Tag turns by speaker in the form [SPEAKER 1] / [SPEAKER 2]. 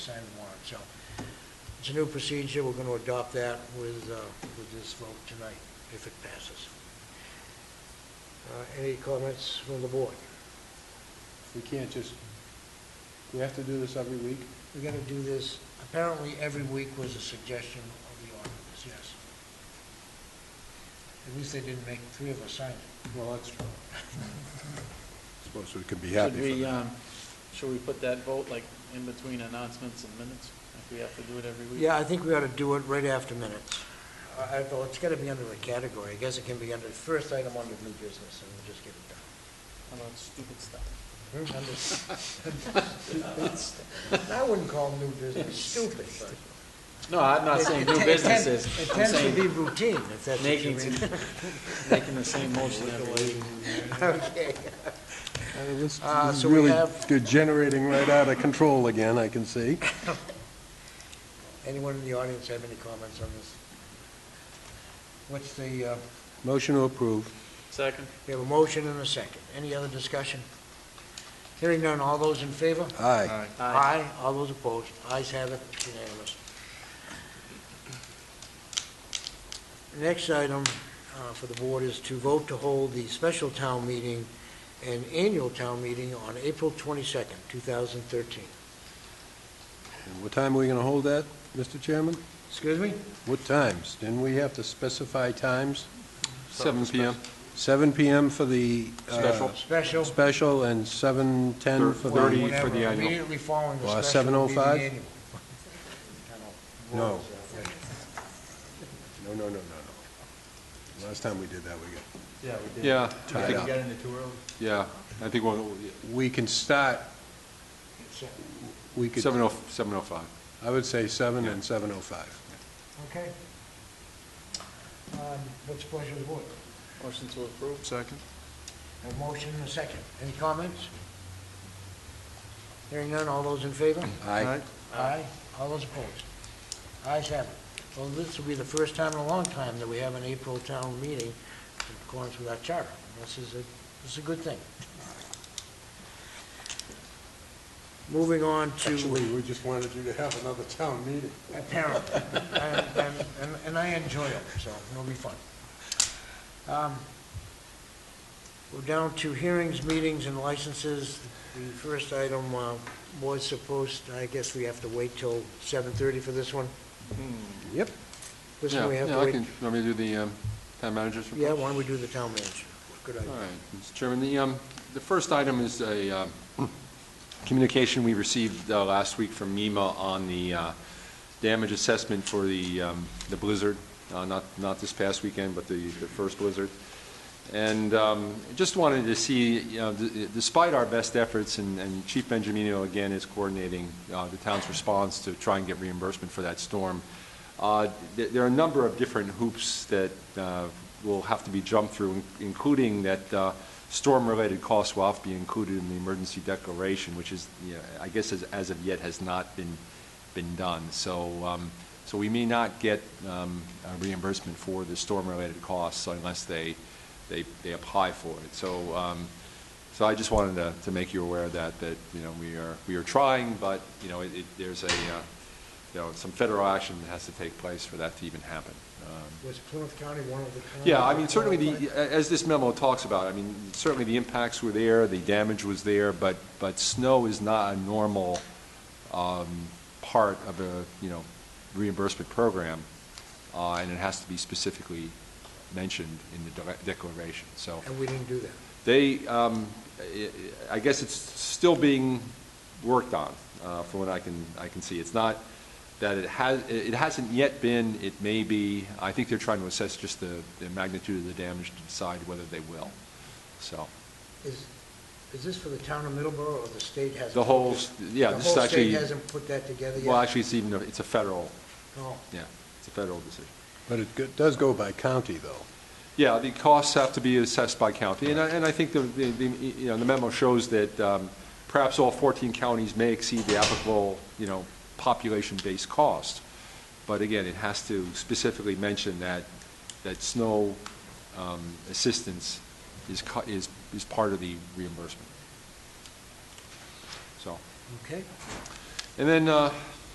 [SPEAKER 1] sign the warrant, so it's a new procedure, we're going to adopt that with, uh, with this vote tonight, if it passes. Uh, Any comments from the board?
[SPEAKER 2] We can't just, we have to do this every week?
[SPEAKER 1] We're going to do this, apparently every week was a suggestion of the auditors, yes. At least they didn't make three of us sign it.
[SPEAKER 2] Well, that's true.
[SPEAKER 3] Suppose we could be
[SPEAKER 4] Should
[SPEAKER 3] happy for
[SPEAKER 4] we,
[SPEAKER 3] that.
[SPEAKER 4] um, should we put that vote like in between announcements and minutes? If we have to do it every week?
[SPEAKER 1] Yeah, I think we ought to do it right after minutes. I, I- well, it's got to be under a category, I guess it can be under, first item under new business, and we'll just get it done.
[SPEAKER 4] How about stupid stuff?
[SPEAKER 1] I wouldn't call new business stupid, but.
[SPEAKER 4] No, I'm not saying new businesses.
[SPEAKER 1] It
[SPEAKER 4] I'm
[SPEAKER 1] tends to be
[SPEAKER 4] saying
[SPEAKER 1] routine, if that's what you
[SPEAKER 4] making,
[SPEAKER 1] mean.
[SPEAKER 4] making the same motion every week.
[SPEAKER 1] Okay.
[SPEAKER 3] This
[SPEAKER 1] Uh,
[SPEAKER 3] is
[SPEAKER 1] so we
[SPEAKER 3] really
[SPEAKER 1] have-
[SPEAKER 3] degenerating right out of control again, I can see.
[SPEAKER 1] Anyone in the audience have any comments on this? What's the, uh,
[SPEAKER 3] Motion to approve.
[SPEAKER 4] Second?
[SPEAKER 1] we have a motion and a second. Any other discussion? Hearing none, all those in favor?
[SPEAKER 3] Aye.
[SPEAKER 4] Aye.
[SPEAKER 1] All those opposed? Ayes have it, It's unanimous. Next item uh, for the board is to vote to hold the special town meeting and annual town meeting on April 22nd, 2013.
[SPEAKER 3] And what time are we going to hold that, Mr. Chairman?
[SPEAKER 1] Excuse me?
[SPEAKER 3] What times? Didn't we have to specify times? Seven PM. Seven PM for the... uh,
[SPEAKER 5] Special.
[SPEAKER 1] Special.
[SPEAKER 3] Special and 7:10 for the...
[SPEAKER 1] Well,
[SPEAKER 5] 30 for
[SPEAKER 1] whatever,
[SPEAKER 5] the annual.
[SPEAKER 1] Immediately following the
[SPEAKER 3] Uh,
[SPEAKER 1] special will be
[SPEAKER 5] oh
[SPEAKER 1] the
[SPEAKER 3] 7:05?
[SPEAKER 1] annual. I don't know.
[SPEAKER 3] No. No, no, no, no, no. Last time we did that, we got...
[SPEAKER 4] Yeah, we
[SPEAKER 5] Yeah, I
[SPEAKER 3] Tied
[SPEAKER 5] think,
[SPEAKER 3] up.
[SPEAKER 4] in the two early.
[SPEAKER 5] yeah, I think we'll,
[SPEAKER 3] We can start,
[SPEAKER 1] It's, uh,
[SPEAKER 3] we could,
[SPEAKER 5] seven oh, seven oh five.
[SPEAKER 3] I would say 7 and 7:05.
[SPEAKER 1] Okay. Um, What's the pleasure of the board?
[SPEAKER 4] Motion to approve?
[SPEAKER 5] Second.
[SPEAKER 1] A motion and a second. Any comments? Hearing none, all those in favor?
[SPEAKER 3] Aye.
[SPEAKER 1] Aye. All those opposed? Ayes have it. Well, this will be the first time in a long time that we have an April town meeting in accordance with our charter. This is a, this is a good thing. Moving on to...
[SPEAKER 3] we just wanted you to have another town meeting.
[SPEAKER 1] apparently. And, and- and- and I enjoy them, so it'll be fun. Um, We're down to hearings, meetings, and licenses. The first item uh, was supposed, I guess we have to wait till 7:30 for this one?
[SPEAKER 3] Yep.
[SPEAKER 1] This
[SPEAKER 5] Yeah,
[SPEAKER 1] one we have
[SPEAKER 5] yeah,
[SPEAKER 1] to
[SPEAKER 5] I
[SPEAKER 1] wait?
[SPEAKER 5] can, want me to do the, um, town manager's report?
[SPEAKER 1] Yeah, why don't we do the town manager? Good idea.
[SPEAKER 5] All right, Mr. Chairman, the, um, the first item is a, um, communication we received, uh, last week from MEMA on the, uh, damage assessment for the, um, the blizzard, uh, not, not this past weekend, but the, the first blizzard. And, um, just wanted to see, you know, d- despite our best efforts, and, and Chief Benjamino again is coordinating, uh, the town's response to try and get reimbursement for that storm, uh, th- There are a number of different hoops that uh, will have to be jumped through, in- including that uh, storm-related costs will have to be included in the emergency declaration, which is, you know, I guess, as- as of yet, has not been, been done. So, um, so we may not get um, a reimbursement for the storm-related costs unless they, they, they apply for it. So, um, so I just wanted to, to make you aware of that, that, you know, we are, we are trying, but, you know, it, it- there's a, uh, you know, some federal action that has to take place for that to even happen. Um,
[SPEAKER 1] Was Plymouth County one of the...
[SPEAKER 5] Yeah, I mean, certainly, the as this memo talks about, I mean, certainly the impacts were there, the damage was there, but, but snow is not a normal um, part of a, you know, reimbursement program, uh, and it has to be specifically mentioned in the de- declaration, so.
[SPEAKER 1] And we didn't do that.
[SPEAKER 5] They, um, I- I guess it's still being worked on, uh, from what I can, I can see. It's not that it has, it hasn't yet been, it may be, I think they're trying to assess just the the magnitude of the damage to decide whether they will, so.
[SPEAKER 1] Is, is this for the town of Middleborough, or the state hasn't?
[SPEAKER 5] The
[SPEAKER 1] put
[SPEAKER 5] whole,
[SPEAKER 1] this-
[SPEAKER 5] yeah,
[SPEAKER 1] the
[SPEAKER 5] this
[SPEAKER 1] whole
[SPEAKER 5] is actually,
[SPEAKER 1] state hasn't put that together yet? Oh.
[SPEAKER 5] well, actually, it's even, a- it's a federal,
[SPEAKER 1] No.
[SPEAKER 5] yeah, it's a federal decision.
[SPEAKER 3] But it go- does go by county, though.
[SPEAKER 5] Yeah, the costs have to be assessed by county, and I, and I think the, the, the, you know, the memo shows that um, perhaps all 14 counties may exceed the applicable, you know, population-based cost. But again, it has to specifically mention that, that snow um, assistance is, co- is, is part of the reimbursement. So,
[SPEAKER 1] Okay.
[SPEAKER 5] And then uh,